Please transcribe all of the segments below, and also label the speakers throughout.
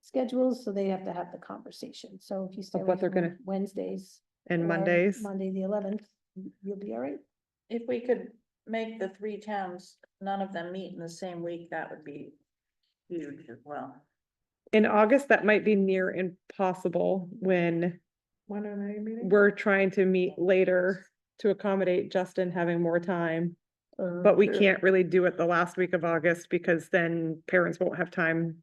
Speaker 1: schedules, so they have to have the conversation. So if you stay
Speaker 2: Of what
Speaker 1: away
Speaker 2: they're
Speaker 1: from
Speaker 2: gonna-
Speaker 1: Wednesdays.
Speaker 2: and
Speaker 1: or
Speaker 2: Mondays.
Speaker 1: Monday, the eleventh, you'll be all right.
Speaker 3: If we could make the three towns, none of them meet in the same week, that would be huge as well.
Speaker 2: In August, that might be near impossible when
Speaker 3: When are they meeting?
Speaker 2: we're trying to meet later to accommodate Justin having more time. But we can't really do it the last week of August because then parents won't have time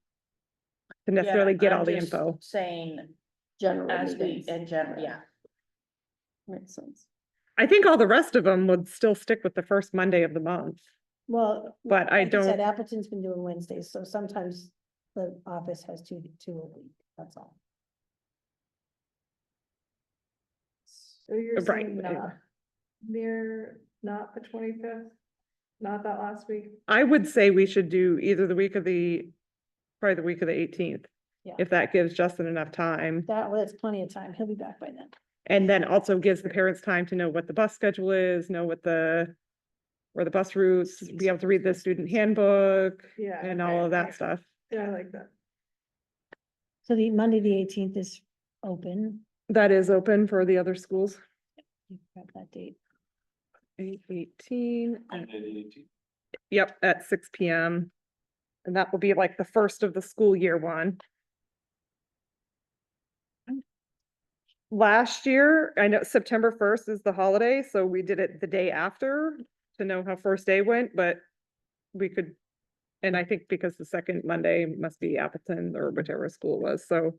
Speaker 2: to necessarily get all the info.
Speaker 3: Saying
Speaker 1: General
Speaker 3: as we,
Speaker 1: meetings.
Speaker 3: in general, yeah.
Speaker 1: Makes sense.
Speaker 2: I think all the rest of them would still stick with the first Monday of the month.
Speaker 1: Well.
Speaker 2: But I
Speaker 1: like said,
Speaker 2: don't-
Speaker 1: Appleton's been doing Wednesdays, so sometimes the office has two, two a week, that's all.
Speaker 4: So you're
Speaker 2: Right,
Speaker 4: saying
Speaker 2: right.
Speaker 4: not near, not the twenty-fifth, not that last week?
Speaker 2: I would say we should do either the week of the, probably the week of the eighteenth.
Speaker 1: Yeah.
Speaker 2: If that gives Justin enough time.
Speaker 1: That, well, that's plenty of time. He'll be back by then.
Speaker 2: And then also gives the parents time to know what the bus schedule is, know what the, or the bus routes, be able to read the student handbook
Speaker 4: Yeah.
Speaker 2: and all of that stuff.
Speaker 4: Yeah, I like that.
Speaker 1: So the Monday, the eighteenth is open.
Speaker 2: That is open for the other schools.
Speaker 1: You grab that date.
Speaker 2: Eight eighteen, uh,
Speaker 5: Monday the 18th.
Speaker 2: yep, at six P M. And that will be like the first of the school year one. Last year, I know September first is the holiday, so we did it the day after to know how first day went, but we could. And I think because the second Monday must be Appleton or whichever school was, so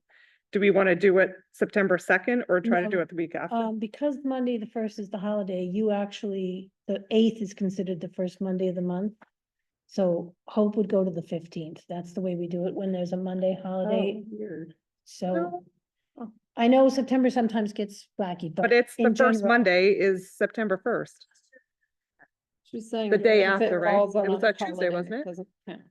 Speaker 2: do we want to do it September second or try to
Speaker 1: No.
Speaker 2: do it the week after?
Speaker 1: Um, because Monday, the first is the holiday, you actually, the eighth is considered the first Monday of the month. So Hope would go to the fifteenth. That's the way we do it when there's a Monday holiday.
Speaker 4: Oh, Weird.
Speaker 1: So I know September sometimes gets wacky, but.
Speaker 2: Oh. But it's the
Speaker 1: in
Speaker 2: first
Speaker 1: general-
Speaker 2: Monday is September first.
Speaker 6: She's saying.
Speaker 2: The day
Speaker 6: if it
Speaker 2: after, right?
Speaker 6: falls on
Speaker 2: It was
Speaker 6: a
Speaker 2: that Tuesday,
Speaker 6: holiday,
Speaker 2: wasn't it?
Speaker 6: doesn't count.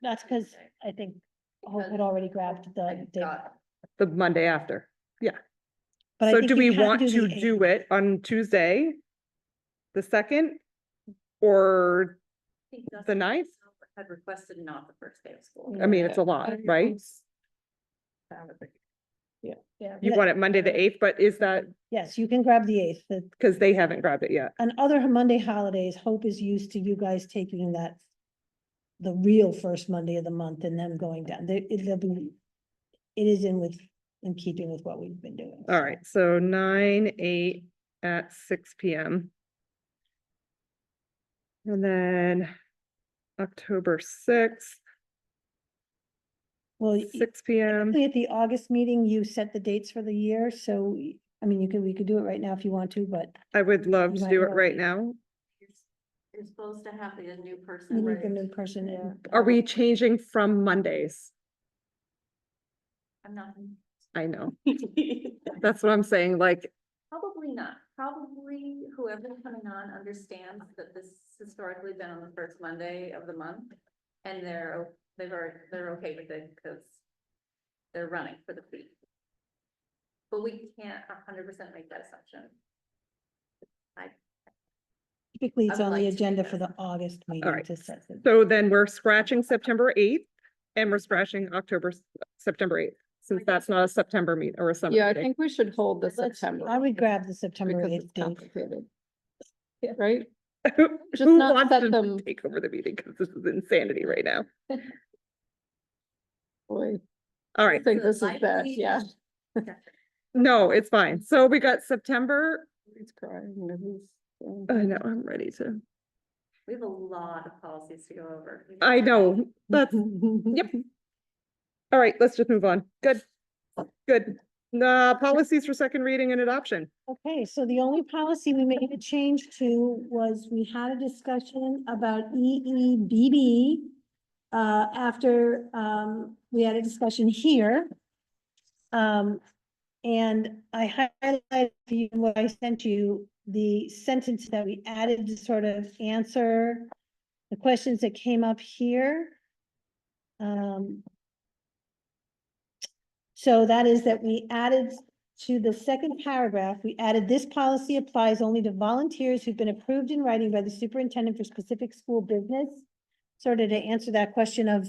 Speaker 1: That's because I think Hope had
Speaker 3: Because-
Speaker 1: already grabbed
Speaker 3: I
Speaker 1: the date.
Speaker 3: thought-
Speaker 2: The Monday after.
Speaker 1: But I
Speaker 2: So
Speaker 1: think
Speaker 2: do
Speaker 1: you
Speaker 2: we
Speaker 1: can
Speaker 2: want
Speaker 1: the
Speaker 2: to
Speaker 1: 8th.
Speaker 2: do it on Tuesday? The second? Or, The ninth?
Speaker 3: Had requested not the first day of school.
Speaker 2: I mean, it's a lot,
Speaker 6: I-
Speaker 2: right?
Speaker 1: Yeah,
Speaker 2: You
Speaker 1: let-
Speaker 2: want it Monday the eighth, but is that,
Speaker 1: Yes, you can grab the eighth. The,
Speaker 2: because they haven't grabbed it yet?
Speaker 1: on other Monday holidays, Hope is used to you guys taking that the real first Monday of the month and them going down. They, it'll be, it is in with, in keeping with what we've been doing.
Speaker 2: All right, so nine, eight at six P M. And then October sixth,
Speaker 1: Well, y-
Speaker 2: six P M.
Speaker 1: typically at the August meeting, you set the dates for the year, so, y- I mean, you could, we could do it right now if you want to, but
Speaker 2: I would love
Speaker 1: You
Speaker 2: to
Speaker 1: might
Speaker 2: do it
Speaker 1: wanna
Speaker 2: right
Speaker 1: wait.
Speaker 2: now.
Speaker 3: You're supposed to have the
Speaker 1: you
Speaker 3: new person.
Speaker 1: need the new person in.
Speaker 2: Are we changing from Mondays?
Speaker 3: I'm not.
Speaker 2: I know. That's what I'm saying, like,
Speaker 3: Probably not. Probably whoever's coming on understands that this has historically been on the first Monday of the month. And they're, o- they've already, they're okay with it because they're running for the fee. But we can't a hundred percent make that assumption.
Speaker 1: Typically,
Speaker 3: I
Speaker 1: it's
Speaker 3: would
Speaker 1: on
Speaker 3: like
Speaker 1: the
Speaker 3: to do
Speaker 1: agenda
Speaker 3: that.
Speaker 1: for the August meeting
Speaker 2: right.
Speaker 1: to set the.
Speaker 2: so then we're scratching September eighth and we're scratching October, s- September eighth, since that's not a September meet or a summer.
Speaker 6: Yeah, I
Speaker 2: meeting.
Speaker 6: think we should hold the
Speaker 1: Let's-
Speaker 6: September.
Speaker 1: I would grab the September
Speaker 6: Because it's
Speaker 1: eighth date.
Speaker 6: complicated. Right?
Speaker 2: Who
Speaker 6: just
Speaker 2: who
Speaker 6: not
Speaker 2: wants
Speaker 6: set
Speaker 2: to
Speaker 6: them-
Speaker 2: take over the meeting? Because this is insanity right now.
Speaker 6: Boy,
Speaker 2: All
Speaker 6: I
Speaker 2: right,
Speaker 6: think this is
Speaker 3: Light
Speaker 6: bad,
Speaker 3: week.
Speaker 6: yeah.
Speaker 2: no, it's fine. So we got September,
Speaker 6: He's crying. and he's, um,
Speaker 2: I know, I'm ready to,
Speaker 3: We have a lot of policies to go over.
Speaker 2: I know, that's, yep. All right, let's just move on. Good, good. Uh, policies for second reading and adoption.
Speaker 1: Okay, so the only policy we made a change to was we had a discussion about E E B B. Uh, after, um, we had a discussion here. Um, and I highlighted for you what I sent you, the sentence that we added to sort of answer the questions that came up here. Um. So that is that we added to the second paragraph, we added this policy applies only to volunteers who've been approved in writing by the superintendent for specific school business. Sort of to answer that question of